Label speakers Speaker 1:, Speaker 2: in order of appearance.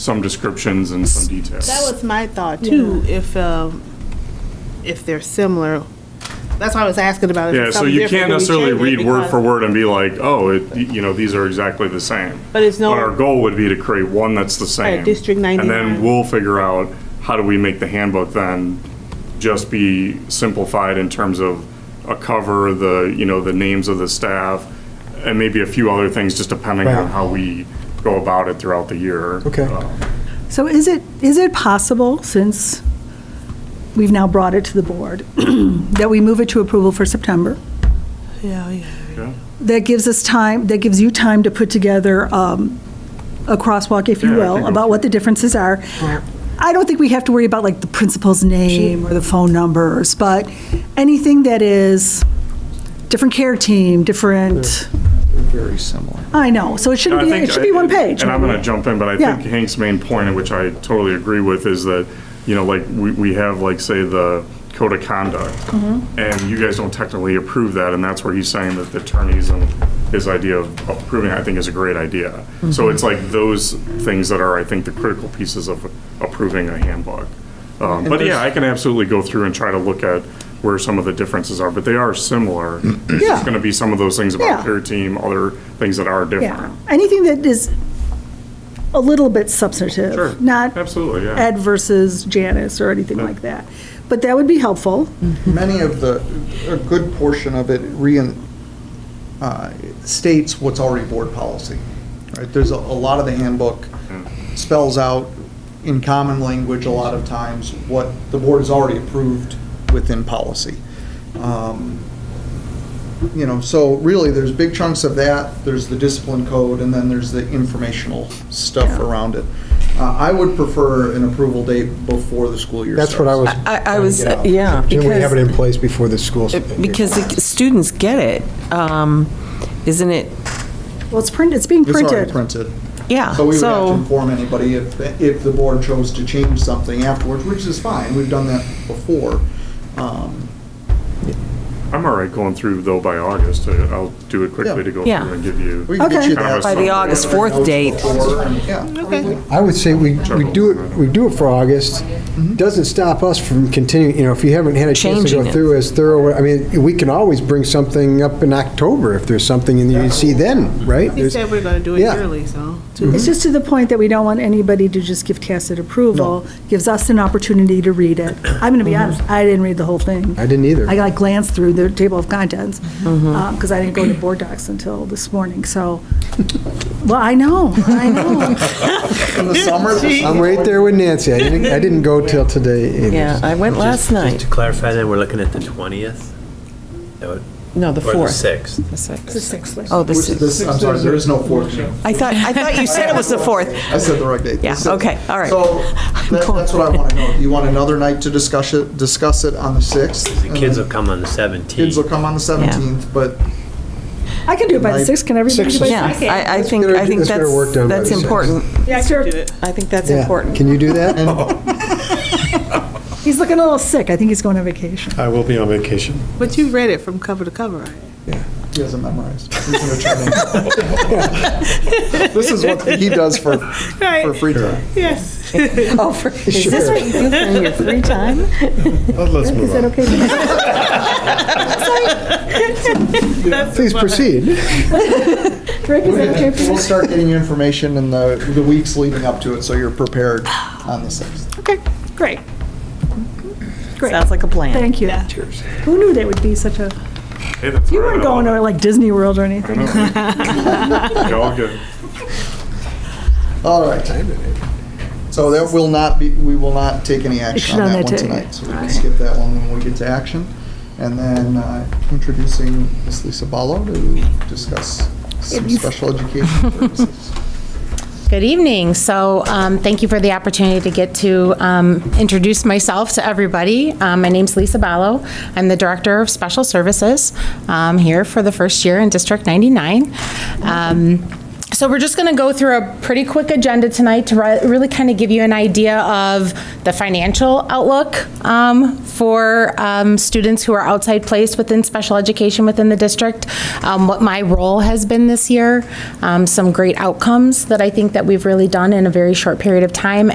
Speaker 1: some descriptions and some details.
Speaker 2: That was my thought too, if, um, if they're similar. That's why I was asking about. if
Speaker 1: Yeah,
Speaker 2: it's
Speaker 1: so
Speaker 2: something
Speaker 1: you
Speaker 2: different,
Speaker 1: can't
Speaker 2: do we
Speaker 1: necessarily
Speaker 2: change it?
Speaker 1: read word
Speaker 2: Because-
Speaker 1: for word and be like, oh, it- you know, these are exactly the same.
Speaker 2: But it's no-
Speaker 1: But our goal would be to create one that's the same.
Speaker 2: District
Speaker 1: And then
Speaker 2: 99.
Speaker 1: we'll figure out, how do we make the handbook then just be simplified in terms of a cover, the, you know, the names of the staff, and maybe a few other things, just depending on
Speaker 3: Right.
Speaker 1: how we go about it throughout the year.
Speaker 3: Okay.
Speaker 1: Uh,
Speaker 4: So is it, is it possible, since we've now brought it to the board, that we move it to approval for September?
Speaker 2: Yeah, yeah.
Speaker 4: That gives us time, that gives you time to put together um, a crosswalk, if you
Speaker 1: Yeah, I
Speaker 4: will,
Speaker 1: think
Speaker 4: about what the differences are. I don't think we have to worry about like the principal's name or the phone numbers, but anything that is different care team, different,
Speaker 3: Very similar.
Speaker 4: I know, so it shouldn't
Speaker 1: I
Speaker 4: be,
Speaker 1: think
Speaker 4: it should be
Speaker 1: I-
Speaker 4: one page.
Speaker 1: And I'm going to jump in, but I
Speaker 4: Yeah.
Speaker 1: think Hank's main point, which I totally agree with, is that, you know, like, we, we have, like, say, the code of conduct,
Speaker 4: Mm-hmm.
Speaker 1: and you guys don't technically approve that, and that's where he's saying that the attorneys and his idea of approving, I think, is a great idea.
Speaker 4: Mm-hmm.
Speaker 1: So it's like those things that are, I think, the critical pieces of approving a handbook. Um, But yeah, I can absolutely go through and try to look at where some of the differences are, but they are similar. It's
Speaker 4: Yeah.
Speaker 1: just going to be some of those things
Speaker 4: Yeah.
Speaker 1: about their team, other things that are different.
Speaker 4: Yeah, anything that is a little bit substantive.
Speaker 1: Sure.
Speaker 4: Not
Speaker 1: Absolutely, yeah.
Speaker 4: Ed versus Janice or anything like that. But that would be helpful.
Speaker 3: Many of the, a good portion of it rein- uh, states what's already board policy. right? There's a a lot of the handbook spells out in common language a lot of times what the board has already approved within policy. Um, You know, so really, there's big chunks of that, there's the discipline code, and then there's the informational stuff around it. Uh, I would prefer an approval date before the school year starts.
Speaker 5: That's what I was,
Speaker 6: I, I was,
Speaker 3: Get out.
Speaker 6: yeah.
Speaker 5: can we have it
Speaker 6: because-
Speaker 5: in place before the schools?
Speaker 6: Because the students get it, um, isn't it,
Speaker 4: Well, it's printed, it's being
Speaker 3: It's already
Speaker 4: printed.
Speaker 3: printed.
Speaker 6: yeah,
Speaker 3: So we would have to
Speaker 6: so,
Speaker 3: inform anybody if, if the board chose to change something afterwards, which is fine, we've done that before. Um,
Speaker 1: I'm all right going through though by August. I- I'll do it quickly to go through
Speaker 6: Yeah.
Speaker 1: and give you.
Speaker 3: we can get
Speaker 4: Okay.
Speaker 3: you
Speaker 1: Kind of
Speaker 3: that.
Speaker 1: a By the summary. August
Speaker 6: 4th
Speaker 3: Notes
Speaker 6: date.
Speaker 3: before, and- Yeah.
Speaker 5: I would say we, we do it, we do it for August. Doesn't stop us from continuing, you know, if you haven't had a chance to
Speaker 6: Mm-hmm. Changing
Speaker 5: go
Speaker 6: it.
Speaker 5: through as thorough, I mean, we can always bring something up in October if there's something in there you see then, right?
Speaker 2: He said we're gonna do it
Speaker 5: Yeah.
Speaker 2: yearly, so.
Speaker 4: It's just to the point that we don't want anybody to just give tacit approval. Gives us an opportunity to read it. I'm going to be honest, I didn't read the whole thing.
Speaker 5: I didn't either.
Speaker 4: I like glanced through the table of contents, because I didn't go to board docs until this morning, so. Well, I know, I know.
Speaker 3: In the summer. the
Speaker 5: I'm
Speaker 3: summer-
Speaker 5: right there with Nancy. I didn't, I didn't go till today either.
Speaker 6: yeah, I went last
Speaker 7: Just
Speaker 6: night.
Speaker 7: to clarify that, we're looking at the 20th? That would-
Speaker 6: No, the
Speaker 7: Or the
Speaker 6: 4th.
Speaker 7: 6th?
Speaker 6: The 6th.
Speaker 4: The sixth one.
Speaker 6: Oh, the
Speaker 3: Which is
Speaker 6: 6th.
Speaker 3: this- I'm sorry, there is no fourth. June.
Speaker 6: I thought, I thought you said it was the 4th.
Speaker 3: I said the right date.
Speaker 6: Yeah,
Speaker 3: The sixth.
Speaker 6: okay, all right.
Speaker 3: So that-
Speaker 6: going-
Speaker 3: that's what I want to know. Do you want another night to discuss it, discuss it on the 6th?
Speaker 7: The kids will come on the 17th.
Speaker 3: Kids will come on the 17th, but
Speaker 4: I can do it by the sixth, can everybody do it by the
Speaker 6: Yeah,
Speaker 4: sixth?
Speaker 6: I, I
Speaker 5: Let's
Speaker 6: think,
Speaker 5: get our-
Speaker 6: I think
Speaker 5: let's get our
Speaker 6: that's,
Speaker 5: work done by
Speaker 6: that's
Speaker 5: the 6th.
Speaker 6: important.
Speaker 2: Yeah, I could do it.
Speaker 6: I think that's
Speaker 5: Yeah.
Speaker 6: important.
Speaker 5: Can you do that?
Speaker 4: He's looking a little sick, I think he's going on vacation.
Speaker 8: I will be on vacation.
Speaker 2: But you read it from cover to cover, right?
Speaker 3: He hasn't memorized. He's an attorney. This is what he does for, for free time.
Speaker 2: Yes.
Speaker 6: Oh, for- Is this what you do for your free time?
Speaker 8: Let's move on.
Speaker 5: Please proceed.
Speaker 4: Rick, is that okay for you?
Speaker 3: We'll start getting you information in the, the weeks leading up to it, so you're prepared on the 6th.
Speaker 4: Okay, great, Great.
Speaker 6: Sounds like a plan.
Speaker 4: thank you. Who knew that would be such a,
Speaker 1: Hey, that's
Speaker 4: you
Speaker 1: all right.
Speaker 4: weren't going to like Disney World or anything?
Speaker 1: Yeah, all good.
Speaker 3: All right. So that will not be, we will not take any action
Speaker 4: Action
Speaker 3: on
Speaker 4: on
Speaker 3: that
Speaker 4: that
Speaker 3: one
Speaker 4: today.
Speaker 3: tonight. So we can skip that one when we get to action. And then uh, introducing Ms. Lisa Ballo to discuss some special education services.
Speaker 9: Good evening. So um, thank you for the opportunity to get to um, introduce myself to everybody. Um, My name's Lisa Ballo. I'm the Director of Special Services um, here for the first year in District 99. Um, So we're just going to go through a pretty quick agenda tonight to ri- really kind of give you an idea of the financial outlook um, for um, students who are outside placed within special education within the district, um, what my role has been this year, um, some great outcomes that I think that we've really done in a very short period of time,